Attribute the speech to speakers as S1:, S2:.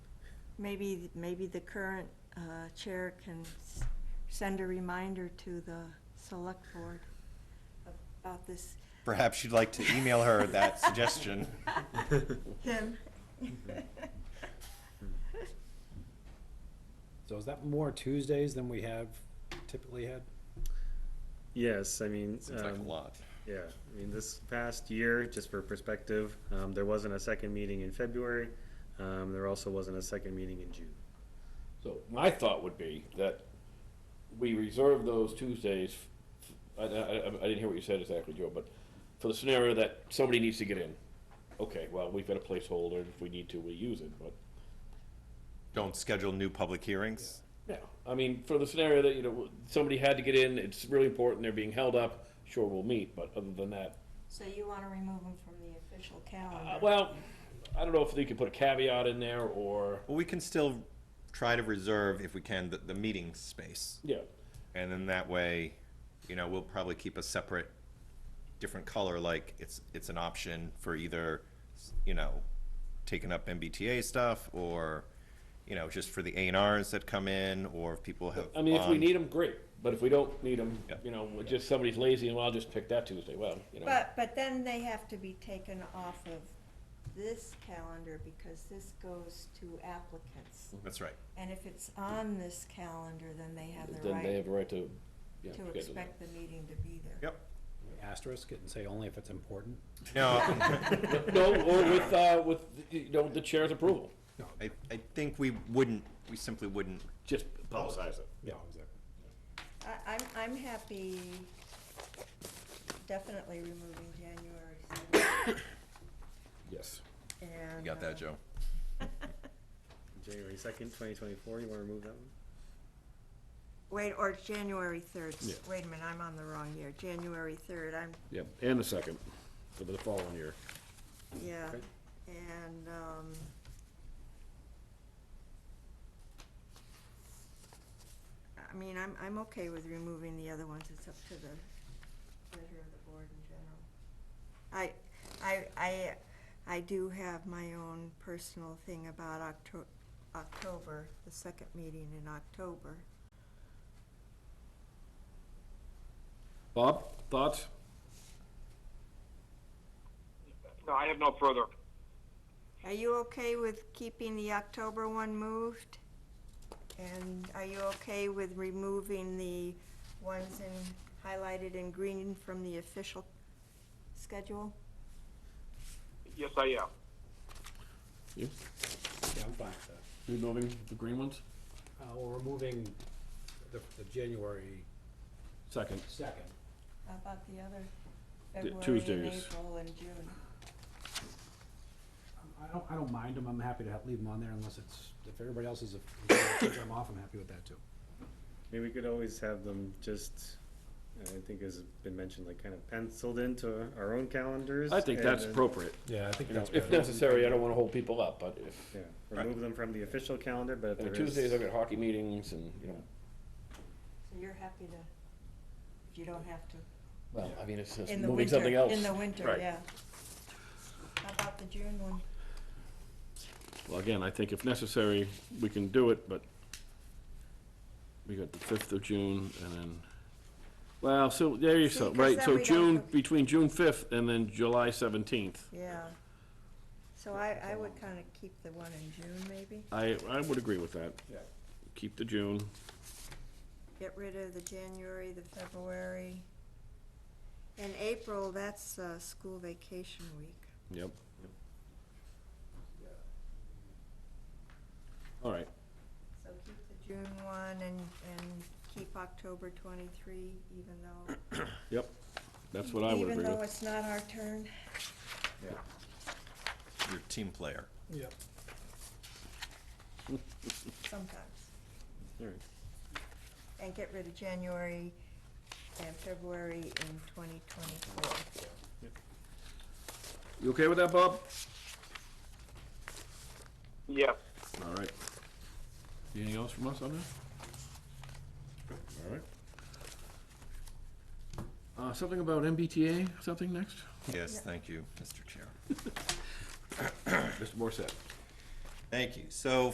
S1: Maybe, maybe the current uh, chair can s- send a reminder to the select board about this.
S2: Perhaps you'd like to email her that suggestion.
S1: Him.
S3: So is that more Tuesdays than we have typically had?
S4: Yes, I mean,
S2: Seems like a
S4: um,
S2: lot.
S4: yeah, I mean, this past year, just for perspective, um, there wasn't a second meeting in February. Um, there also wasn't a second meeting in June.
S5: So my thought would be that we reserve those Tuesdays, f- I, I- I- I didn't hear what you said exactly, Joe, but for the scenario that somebody needs to get in. Okay, well, we've got a placeholder, and if we need to, we use it, but,
S2: Don't schedule new public hearings.
S5: yeah. I mean, for the scenario that, you know, somebody had to get in, it's really important, they're being held up, sure, we'll meet, but other than that,
S1: So you want to remove him from the official
S5: uh,
S1: calendar?
S5: well, I don't know if they could put a caveat in there, or,
S2: Well, we can still try to reserve, if we can, the, the meeting space.
S5: yeah,
S2: And then that way, you know, we'll probably keep a separate, different color, like it's, it's an option for either, you know, taking up MBTA stuff or, you know, just for the A and Rs that come in or if people have.
S5: I mean, if we
S2: bond-
S5: need them, great, but if we don't need them,
S2: Um, Yeah.
S5: you know, just somebody's lazy, and well, I'll just pick that Tuesday, well, you know.
S1: But, but then they have to be taken off of this calendar because this goes to applicants.
S2: That's right.
S1: And if it's on this calendar, then they have the
S5: Then they
S1: right
S5: have a right to, yeah.
S1: to
S5: schedule that.
S1: expect the meeting to be there.
S2: Yep.
S3: Asterisk it and say only if it's important?
S2: No,
S5: No, or with, uh, with, you know, the chair's approval,
S2: I, I think we wouldn't, we simply wouldn't
S5: just publicize it.
S3: Yeah, exactly.
S1: I, I'm, I'm happy definitely removing January seventh
S5: Yes.
S1: and.
S2: You got
S1: uh,
S2: that, Joe?
S4: January second, twenty twenty-four, you wanna remove that one?
S1: Wait, or January third, wait a minute, I'm on the wrong year, January third, I'm,
S5: Yep, and the second, for the following year.
S1: yeah,
S4: Okay.
S1: and, um. I mean, I'm, I'm okay with removing the other ones, it's up to the pleasure of the board in general. I, I, I, I do have my own personal thing about Octo- October, the second meeting in October.
S5: Bob, thoughts?
S6: No, I have no further.
S1: Are you okay with keeping the October one moved? And are you okay with removing the ones in, highlighted in green from the official schedule?
S6: Yes, I am.
S3: Yeah,
S5: You?
S3: I'm fine with that.
S5: You moving the green ones?
S3: Uh, we're removing the, the January
S5: Second.
S3: second.
S1: How about the other
S5: The
S1: February and
S5: Tuesdays.
S1: April and June?
S3: I don't, I don't mind them, I'm happy to have, leave them on there unless it's, if everybody else is, if I'm off, I'm happy with that too.
S4: I mean, we could always have them just, I think has been mentioned, like kind of penciled into our own calendars. and then,
S5: appropriate.
S3: Yeah, I think
S4: You know,
S3: that's
S5: If
S3: good.
S5: necessary, I don't wanna hold people up, but if,
S4: Yeah, remove them from the official calendar, but if
S5: and
S4: there is.
S5: Tuesdays, I've got hockey meetings and, you know,
S1: So you're happy to, if you don't have to,
S5: well, I mean, it's just
S1: in the
S5: moving
S1: winter,
S5: something else.
S1: in the winter,
S5: Right.
S1: yeah. How about the June one?
S5: Well, again, I think if necessary, we can do it, but we got the fifth of June and then, well, so there you
S1: See,
S5: go,
S1: 'cause
S5: right,
S1: then
S5: so
S1: we don't
S5: June,
S1: have-
S5: between June fifth and then July seventeenth.
S1: Yeah. So I, I would kinda keep the one in June maybe,
S5: I, I would agree with that. Yeah. Keep the June.
S1: get rid of the January, the February. And April, that's, uh, school vacation week.
S5: Yep. All right,
S1: So keep the June one and, and keep October twenty-three, even though,
S5: yep, that's what I would
S1: even
S5: agree
S1: though
S5: with.
S1: it's not our turn.
S2: You're a team player.
S3: Yep.
S1: Sometimes.
S4: All right.
S1: And get rid of January and February in twenty twenty-four.
S5: You okay with that, Bob?
S6: Yes.
S5: All right. Anything else from us on this? All right. Uh, something about MBTA, something next?
S2: Yes, thank you, Mr. Chair.
S5: Mr. Morissette.
S2: Thank you. So